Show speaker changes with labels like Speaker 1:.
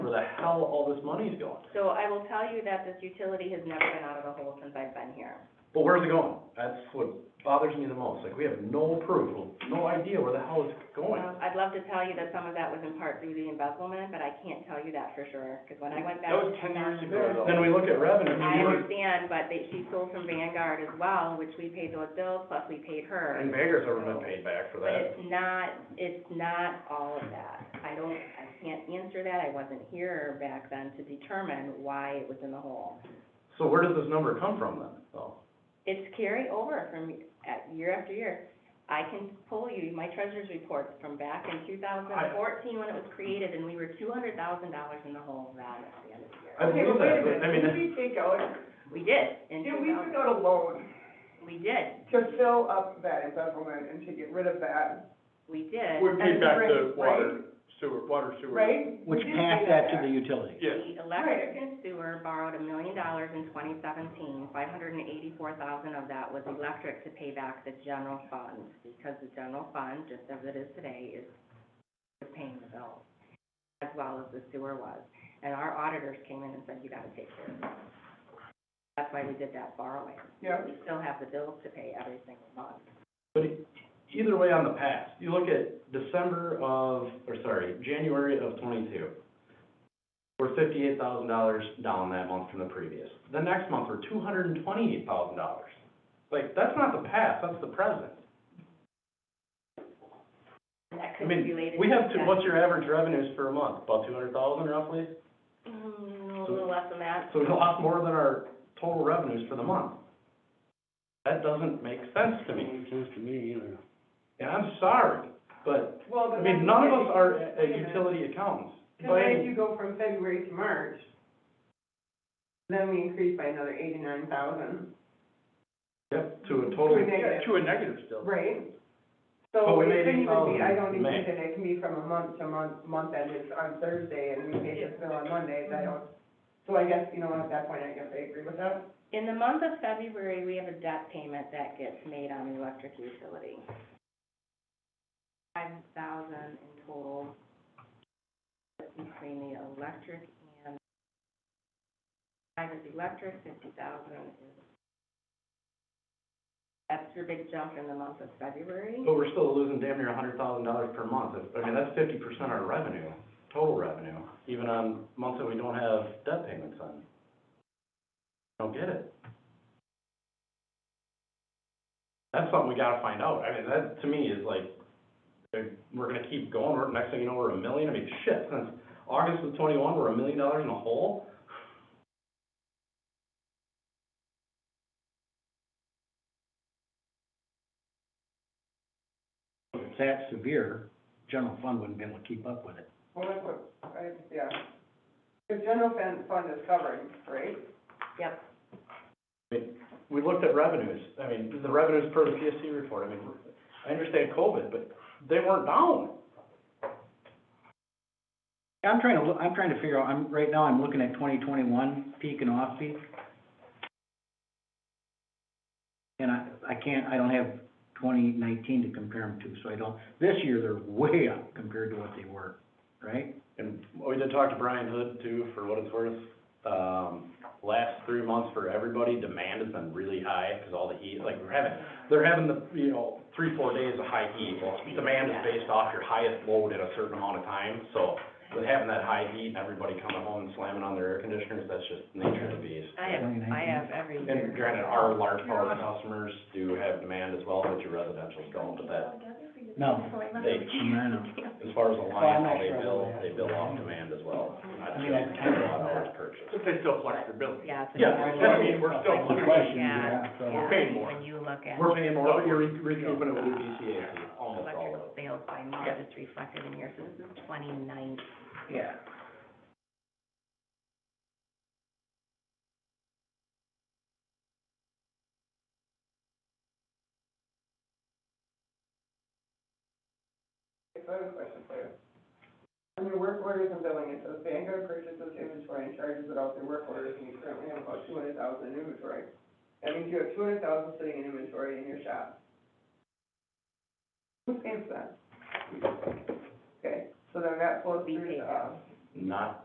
Speaker 1: the hell all this money is going.
Speaker 2: So I will tell you that this utility has never been out of the hole since I've been here.
Speaker 1: But where's it going? That's what bothers me the most, like, we have no proof, no idea where the hell it's going.
Speaker 2: Um, I'd love to tell you that some of that was in part through the embezzlement, but I can't tell you that for sure, because when I went back.
Speaker 3: That was
Speaker 2: to
Speaker 3: 10 years
Speaker 2: 2000
Speaker 3: ago, though.
Speaker 1: Then we look at revenue, we
Speaker 2: I
Speaker 1: look-
Speaker 2: understand, but they, she sold from Vanguard as well, which we paid those bills, plus we paid her.
Speaker 1: and Vegas ever been paid back for
Speaker 2: But
Speaker 1: that.
Speaker 2: it's not, it's not all of that. I don't, I can't answer that, I wasn't here back then to determine why it was in the hole.
Speaker 1: So where does this number come from then, though?
Speaker 2: It's carry over from, uh, year after year. I can pull you my treasurer's reports from back in two thousand fourteen when it was created, and we were two hundred thousand dollars in the hole then at the end of the
Speaker 1: I
Speaker 2: year.
Speaker 3: Okay,
Speaker 1: believe
Speaker 3: but wait a
Speaker 1: that, but I mean,
Speaker 3: minute, did
Speaker 1: that's-
Speaker 3: we take out,
Speaker 2: We did, in
Speaker 3: did
Speaker 2: two
Speaker 3: we take
Speaker 2: thousand,
Speaker 3: out a loan
Speaker 2: we did,
Speaker 3: to fill up that embezzlement and to get rid of that?
Speaker 2: we did.
Speaker 4: We paid back the
Speaker 3: Right,
Speaker 4: water, sewer, water sewer.
Speaker 3: Right? We
Speaker 5: Which
Speaker 3: did
Speaker 5: passed
Speaker 3: pay
Speaker 5: that to the
Speaker 3: back.
Speaker 5: utility.
Speaker 4: Yes,
Speaker 2: The electric and sewer borrowed a million dollars in 2017. 584,000 of that was electric to pay back the general fund, because the general fund, just as it is today, is paying the bill, as well as the sewer was. And our auditors came in and said, you gotta take care of that. That's why we did that borrowing.
Speaker 3: Yeah,
Speaker 2: We still have the bills to pay every single month.
Speaker 1: but e- either way on the past, you look at December of, or sorry, January of twenty-two. We're fifty-eight thousand dollars down that month from the previous. The next month, we're two hundred and twenty-eight thousand dollars. Like, that's not the past, that's the present.
Speaker 2: And that
Speaker 1: I
Speaker 2: could be
Speaker 1: mean,
Speaker 2: related to.
Speaker 1: we have, to-
Speaker 2: that.
Speaker 1: what's your average revenues for a month? About two hundred thousand roughly?
Speaker 2: Mm, A little less than that.
Speaker 1: So we lost more than our total revenues for the month. That doesn't make sense to me,
Speaker 5: to me either.
Speaker 1: and I'm sorry, but,
Speaker 3: well, but.
Speaker 1: I mean,
Speaker 3: then-
Speaker 1: none of us are uh, uh,
Speaker 3: Wait a minute.
Speaker 1: utility accountants.
Speaker 3: Cause then if
Speaker 1: But-
Speaker 3: you go from February to March, then we increase by another eighty-nine thousand,
Speaker 1: Yep, to a
Speaker 3: To
Speaker 1: total,
Speaker 3: a negative.
Speaker 4: to a negative still.
Speaker 3: right?
Speaker 1: But
Speaker 3: So
Speaker 1: we
Speaker 3: it
Speaker 1: made
Speaker 3: couldn't even be,
Speaker 1: 8,000
Speaker 3: I don't even
Speaker 1: May.
Speaker 3: think that it can be from a month to month, month end, it's on Thursday and we made this bill on Monday, I
Speaker 1: Mm-hmm.
Speaker 3: don't. So I guess, you know, at that point, I guess I agree with that.
Speaker 2: In the month of February, we have a debt payment that gets made on the electric utility. Five thousand in total between the electric and, five is electric, fifty thousand is. That's your big jump in the month of February.
Speaker 1: but we're still losing damn near a hundred thousand dollars per month. If- I mean, that's fifty percent our revenue, total revenue, even on months that we don't have debt payments on. Don't get it. That's something we gotta find out. I mean, that, to me, is like, uh, we're gonna keep going, we're, next thing you know, we're a million, I mean, shit, since August of twenty-one, we're a million dollars in the hole.
Speaker 5: If it's that severe, general fund wouldn't be able to keep up with it.
Speaker 3: Well, that's what, I, yeah. The general fund, fund is covering, right?
Speaker 2: Yep.
Speaker 1: we looked at revenues, I mean, the revenues per the PSC report, I mean, I understand COVID, but they weren't down.
Speaker 5: I'm trying to, loo- I'm trying to figure out, I'm, right now, I'm looking at twenty twenty-one, peak and off-peak. And I, I can't, I don't have twenty nineteen to compare them to, so I don't, this year, they're way up compared to what they were, right?
Speaker 1: And we did talk to Brian Hood too, for what it's worth, um, last three months for everybody, demand has been really high, cause all the heat, like, we're having, they're having the, you know, three, four days of high heat, well, demand is based off your highest load at a certain amount of time, so with having that high heat and everybody coming home and slamming on their air conditioners, that's just nature of the beast.
Speaker 2: I have, I have every year.
Speaker 1: And granted, our large power customers do have demand as well, but your residential's don't, but that,
Speaker 5: No,
Speaker 1: they,
Speaker 5: I know.
Speaker 1: as far as the
Speaker 5: Well,
Speaker 1: line,
Speaker 5: I'm
Speaker 1: how
Speaker 5: not
Speaker 1: they
Speaker 5: sure about
Speaker 1: bill,
Speaker 5: that.
Speaker 1: they bill off demand as well, not just
Speaker 5: I mean, I-
Speaker 1: kilowatt hours purchased.
Speaker 4: But they still flex their billing.
Speaker 2: Yeah. it's a-
Speaker 1: Yeah, I mean, we're still-
Speaker 5: That's the question,
Speaker 2: Yeah,
Speaker 5: yeah, so-
Speaker 2: yeah,
Speaker 4: paying more.
Speaker 2: When you look at.
Speaker 1: We're paying more, but you're re- recouping it with the PCAC, almost all of
Speaker 2: electrical
Speaker 1: it.
Speaker 2: sales by March is reflected in here, so this is twenty-nine.
Speaker 5: Yeah.
Speaker 3: If I have a question for you. On your work orders and billing, it says Vanguard purchases inventory and charges it out through work orders, and you currently have about two hundred thousand in inventory. That means you have two hundred thousand sitting in inventory in your shop. Who pays that? Okay, so then that flows
Speaker 2: We
Speaker 3: through um,
Speaker 2: pay
Speaker 3: to uh,
Speaker 2: that.
Speaker 3: us.
Speaker 1: Not